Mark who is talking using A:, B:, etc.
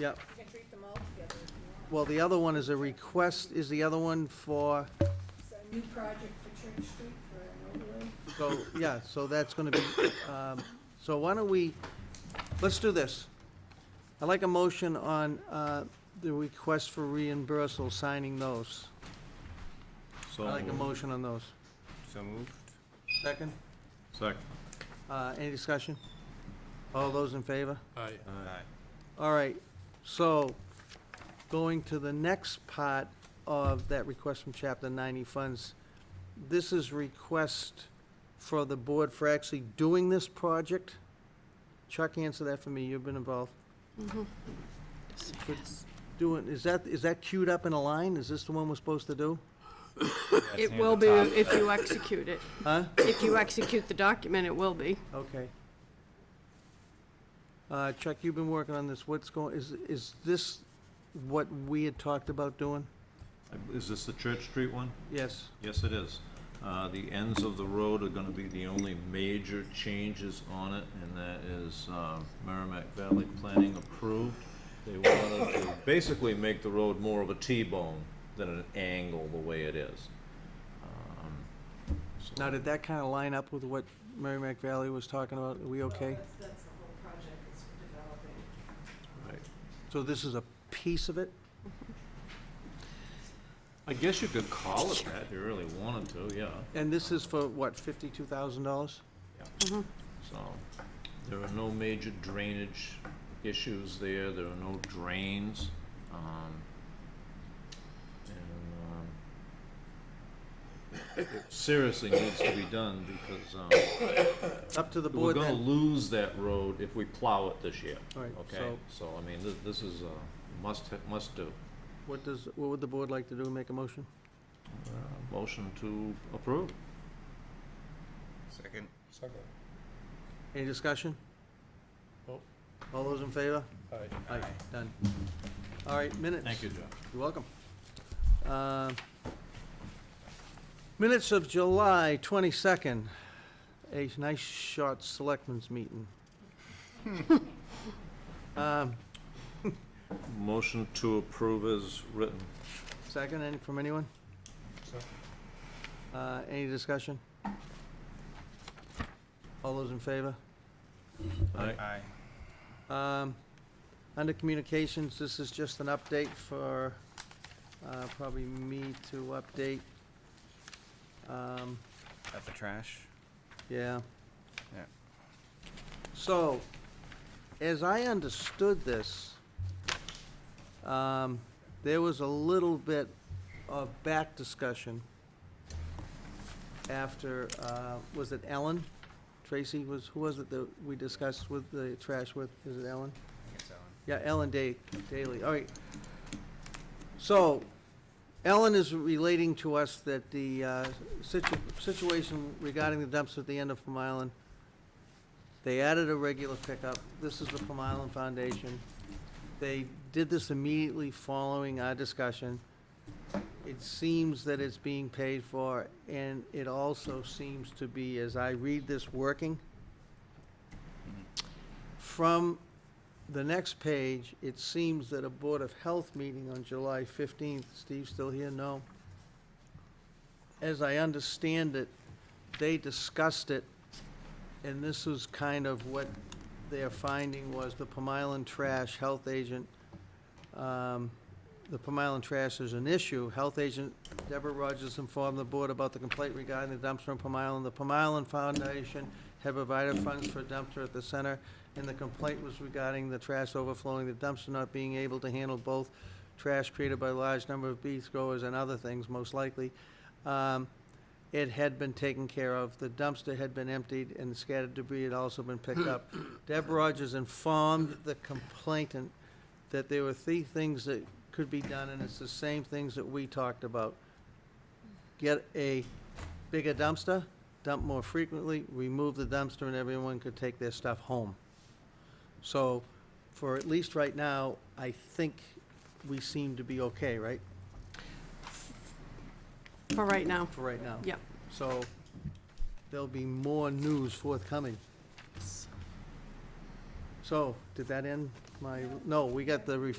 A: Yep.
B: You can treat them all together if you want.
A: Well, the other one is a request, is the other one for,
B: It's a new project for Church Street for an overlay.
A: so, yeah, so that's gonna be, um, so why don't we, let's do this. I'd like a motion on, uh, the request for reimbursal, signing those. I'd
C: So
A: like a
C: moved.
A: motion on those.
C: So moved.
A: Second,
C: Second.
A: uh, any discussion? All those in favor?
D: Aye.
C: Aye.
A: All right, so, going to the next part of that request from chapter ninety funds, this is request for the board for actually doing this project? Chuck, answer that for me, you've been involved. For Doing, is that, is that queued up in a line, is this the one we're supposed to do?
E: It will be if you execute it.
A: Huh?
E: If you execute the document, it will be.
A: Okay. Uh, Chuck, you've been working on this, what's going, is, is this what we had talked about doing?
C: Is this the Church Street one?
A: Yes,
C: Yes, it is. Uh, The ends of the road are gonna be the only major changes on it, and that is uh, Merrimack Valley Planning approved. They wanted to basically make the road more of a T-bone than an angle the way it is. Um, so-
A: now did that kinda line up with what Merrimack Valley was talking about, are we okay?
B: That's, that's the whole project that's developing.
C: Right.
A: So this is a piece of it?
C: I guess you could call it that if you really wanted to, yeah.
A: And this is for what, fifty-two thousand dollars?
E: Mm-hmm.
C: So, there are no major drainage issues there, there are no drains, um, and, um, it seriously needs to be done because, um,
A: Up to the
C: we're
A: board
C: gonna
A: then?
C: lose that road if we plow it this year,
A: All right,
C: okay?
A: so
C: So, I mean, this, this is a must, must do.
A: what does, what would the board like to do, make a motion?
C: Uh, Motion to approve.
F: Second.
D: Second.
A: Any discussion?
D: Nope.
A: All those in favor?
D: Aye.
A: Aye, done. All right, minutes.
C: Thank you, Jeff.
A: You're welcome. Uh, Minutes of July 22nd, a nice short selectmen's meeting. Um,
C: Motion to approve is written.
A: Second, any, from anyone?
D: Second.
A: Uh, Any discussion? All those in favor?
C: Aye.
F: Aye.
A: Um, Under communications, this is just an update for, uh, probably me to update. Um,
F: At the trash.
A: Yeah.
F: Yeah.
A: So, as I understood this, um, there was a little bit of back discussion after, uh, was it Ellen? Tracy was, who was it that we discussed with the trash with? Is it Ellen?
F: I guess Ellen.
A: Yeah, Ellen Day, Daly, all right. So, Ellen is relating to us that the uh, situ- situation regarding the dumps at the end of Plum Island, they added a regular pickup, this is the Plum Island Foundation. They did this immediately following our discussion. It seems that it's being paid for, and it also seems to be, as I read this, working. From the next page, it seems that a Board of Health meeting on July 15th, Steve still here? No. As I understand it, they discussed it, and this was kind of what their finding was, the Plum Island trash health agent, um, the Plum Island trash is an issue. Health agent Deborah Rogers informed the board about the complaint regarding the dumpster in Plum Island. The Plum Island Foundation had provided funds for a dumpster at the center and the complaint was regarding the trash overflowing, the dumpster not being able to handle both trash created by a large number of beef growers and other things, most likely. Um, It had been taken care of, the dumpster had been emptied, and scattered debris had also been picked up. Deb Rogers informed the complainant that there were three things that could be done, and it's the same things that we talked about. Get a bigger dumpster, dump more frequently, remove the dumpster, and everyone could take their stuff home. So, for at least right now, I think we seem to be okay, right,
E: For right now,
A: for right now?
E: Yep.
A: So, there'll be more news forthcoming. So, did that end my, no, we got the ref,